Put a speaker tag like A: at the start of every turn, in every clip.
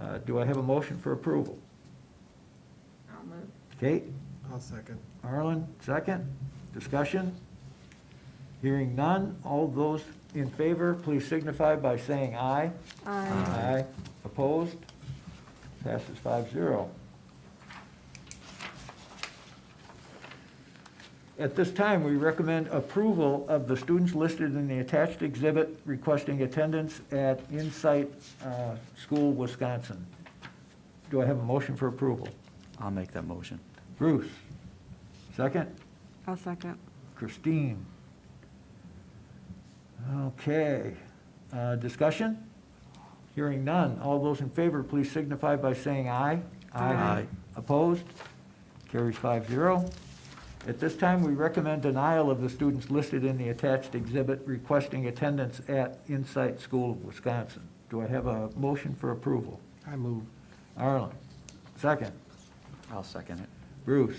A: Uh, Do I have a motion for approval?
B: I'll move.
A: Kate,
C: I'll second.
A: Arlen, second. Discussion? Hearing none. All those in favor, please signify by saying aye.
B: Aye.
A: Opposed? Passes five zero. At this time, we recommend approval of the students listed in the attached exhibit requesting attendance at Insight uh, School, Wisconsin. Do I have a motion for approval?
D: I'll make that motion.
A: Bruce, second?
E: I'll second.
A: Christine. Okay, uh, discussion? Hearing none. All those in favor, please signify by saying aye.
E: Aye.
D: Aye.
A: Opposed? Carries five zero. At this time, we recommend denial of the students listed in the attached exhibit requesting attendance at Insight School of Wisconsin. Do I have a motion for approval?
C: I move.
A: Arlen, second.
D: I'll second it.
A: Bruce,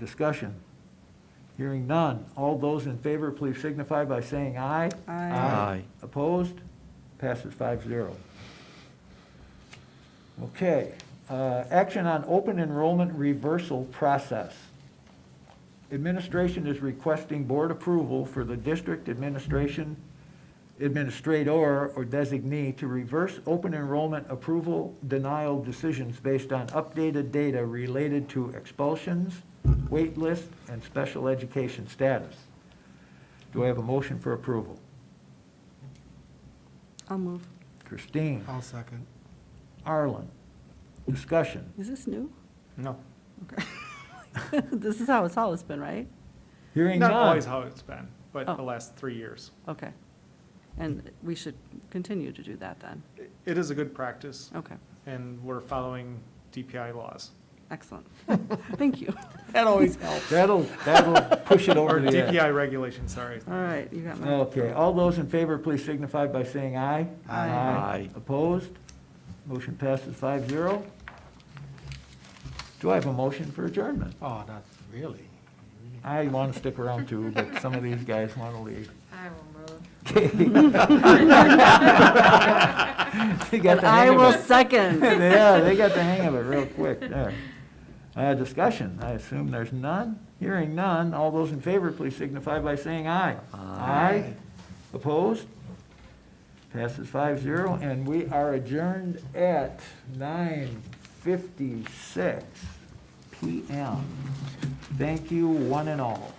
A: discussion. Hearing none. All those in favor, please signify by saying aye.
E: Aye.
D: Aye.
A: Opposed? Passes five zero. Okay, uh, action on open enrollment reversal process. Administration is requesting board approval for the district administration, administrator or designee to reverse open enrollment approval denial decisions based on updated data related to expulsions, waitlist, and special education status. Do I have a motion for approval?
E: I'll move.
A: Christine,
C: I'll second.
A: Arlen, discussion.
E: Is this new?
F: No.
E: Okay. This is how it's always been, right?
A: Hearing
F: Not always
A: none.
F: how it's been, but
E: Oh.
F: the last three years.
E: Okay. And we should continue to do that then.
F: I- It is a good practice,
E: Okay,
F: and we're following DPI laws.
E: excellent. Thank you.
C: That always helps.
A: That'll, that'll push it
F: Or
A: over the edge.
F: DPI regulations, sorry.
E: All right, you got my,
A: Okay, all those in favor, please signify by saying aye.
E: Aye.
D: Aye.
A: Opposed? Motion passes five zero. Do I have a motion for adjournment?
C: Oh, not really.
A: I want to stick around too, but some of these guys want to leave.
B: I will move.
A: They got
E: and
A: the
E: I
A: hang of
E: will
A: it.
E: second.
A: Yeah, they got the hang of it real quick there. Uh, discussion, I assume there's none? Hearing none, all those in favor, please signify by saying aye. Aye. Opposed? Passes five zero, and we are adjourned at nine fifty-six PM. Thank you, one and all.